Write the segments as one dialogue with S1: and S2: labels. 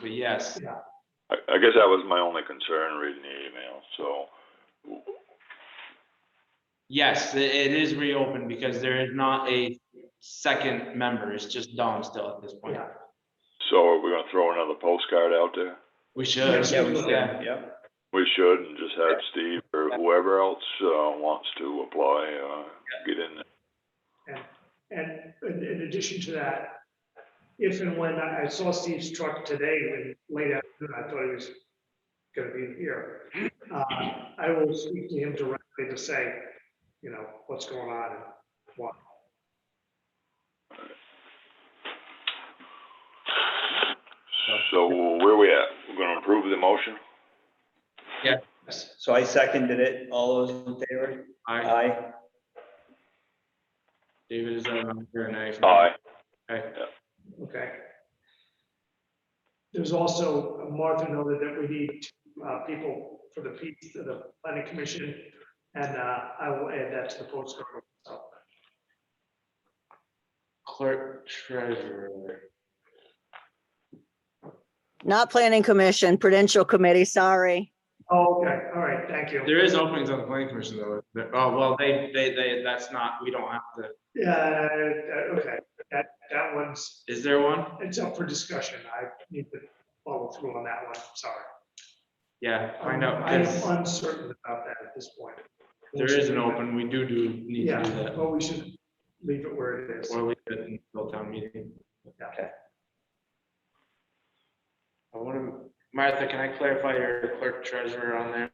S1: but yes,
S2: I, I guess that was my only concern reading the email, so,
S1: yes, i- it is reopened because there is not a second member. It's just Dom still at this
S3: Oh,
S1: point.
S2: so are we gonna throw another postcard out there?
S1: We should.
S4: Yeah, we will.
S1: yeah.
S4: Yep.
S2: We should, and just have Steve or whoever else, uh, wants to apply, uh, get in there.
S3: And in, in addition to that, if and when, I I saw Steve's truck today, when late afternoon, I thought he was gonna be here. Uh, I will speak to him directly to say, you know, what's going on and why.
S2: So where we at? We're gonna approve the motion?
S1: Yes.
S4: So I seconded it. All those in favor?
S1: All right,
S4: Aye.
S1: David is um, a member and I.
S2: Aye.
S1: Okay.
S3: Okay. There's also, uh, Martha noted that we need uh, people for the piece, the planning commission, and uh, I will add that to the postcard. So,
S1: Clerk treasurer.
S5: Not Planning Commission, Prudential Committee, sorry.
S3: Oh, okay, all right, thank you.
S1: There is openings on the planning commission though. There- Oh, well, they, they, they, that's not, we don't have to,
S3: Yeah, uh, okay, that, that one's,
S1: is there one?
S3: it's up for discussion. I need to follow through on that one, sorry.
S1: Yeah, find out,
S3: I'm
S1: 'cause
S3: uncertain about that at this point.
S1: there is an open, we do do, need to
S3: Yeah,
S1: do that.
S3: well, we should leave it where it is.
S1: Or we could until town meeting.
S3: Okay.
S1: I want to, Martha, can I clarify your clerk treasurer on there?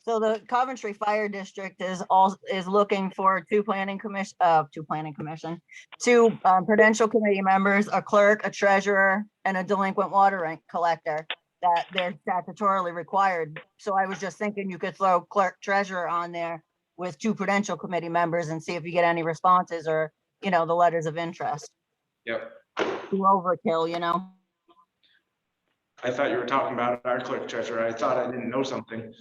S5: So the Coventry Fire District is all, is looking for two planning commission, uh, two planning commission, two um, Prudential Committee members, a clerk, a treasurer, and a delinquent water rent collector that they're statutorily required. So I was just thinking you could throw clerk treasurer on there with two Prudential Committee members and see if you get any responses or, you know, the letters of interest.
S1: Yep.
S5: Too Overkill, you know?
S1: I thought you were talking about our clerk treasurer. I thought I didn't know something.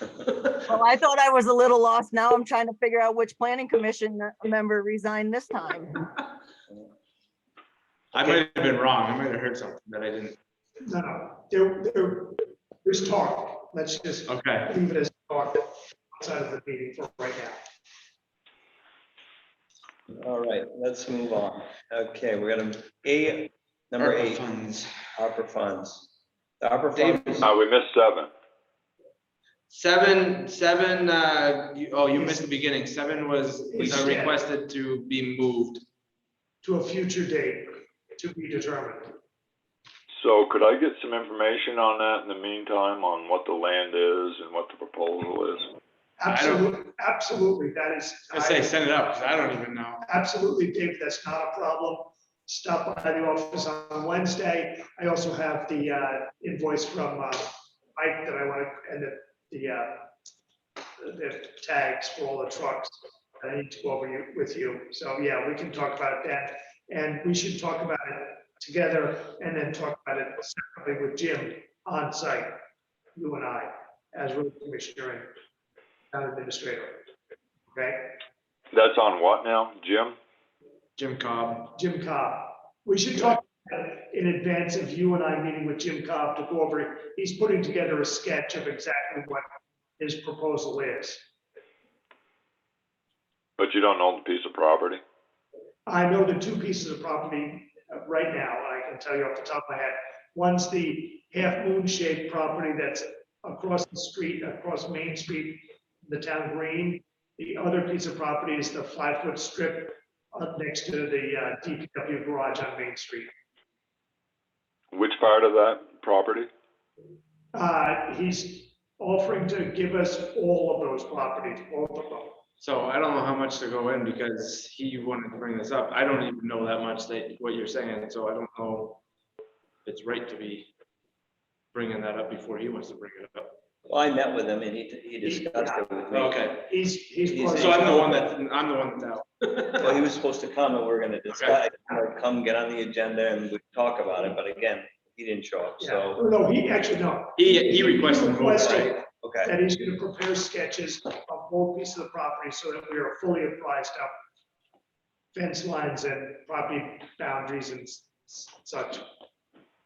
S5: Well, I thought I was a little lost. Now I'm trying to figure out which planning commission member resigned this time.
S1: I might have been wrong. I might have heard something that I didn't.
S3: No, no, there, there, there's talk. Let's just
S1: Okay,
S3: leave it as talk outside of the meeting for right now.
S4: All right, let's move on. Okay, we're gonna, A, number
S1: ARPA
S4: eight,
S1: funds.
S4: ARPA funds. The ARPA funds,
S2: Uh, we missed seven.
S1: Seven, seven, uh, you- oh, you missed the beginning. Seven was, was uh, requested to be moved.
S3: To a future date, to be determined.
S2: So could I get some information on that in the meantime, on what the land is and what the proposal is?
S1: I don't-
S3: Absolutely, absolutely, that is.
S1: I say send it up, because I don't even know.
S3: Absolutely, Dave, that's not a problem. Stop by the office on Wednesday. I also have the uh, invoice from uh, Mike that I want to, and the, the, uh, the tags for all the trucks that I need to go over you- with you. So, yeah, we can talk about that. And we should talk about it together and then talk about it separately with Jim on site, you and I, as road commissioner and town administrator. Okay?
S2: That's on what now, Jim?
S1: Jim Cobb.
S3: Jim Cobb. We should talk in advance of you and I meeting with Jim Cobb to go over, he's putting together a sketch of exactly what his proposal is.
S2: But you don't own the piece of property?
S3: I know the two pieces of property uh, right now, I can tell you off the top of my head. One's the half moon shaped property that's across the street, across Main Street, the town green. The other piece of property is the five foot strip up next to the uh, DPW garage on Main Street.
S2: Which part of that property?
S3: Uh, he's offering to give us all of those properties, all of them.
S1: So I don't know how much to go in because he wanted to bring this up. I don't even know that much that, what you're saying, so I don't know. if It's right to be bringing that up before he wants to bring it up.
S4: Well, I met with him and he, he discussed it with me.
S1: Okay,
S3: He's, he's.
S4: He's-
S1: so I'm the one that, I'm the one that's out.
S4: Well, he was supposed to come and we're gonna discuss, or come get on the agenda and we talk about it, but again, he didn't show up,
S3: Yeah. Oh,
S4: so,
S3: No, he actually, no.
S1: He, he requested a move, right?
S3: Requested
S4: okay.
S3: That he's gonna prepare sketches of all pieces of the property so that we are fully apprised of fence lines and property boundaries and s- such.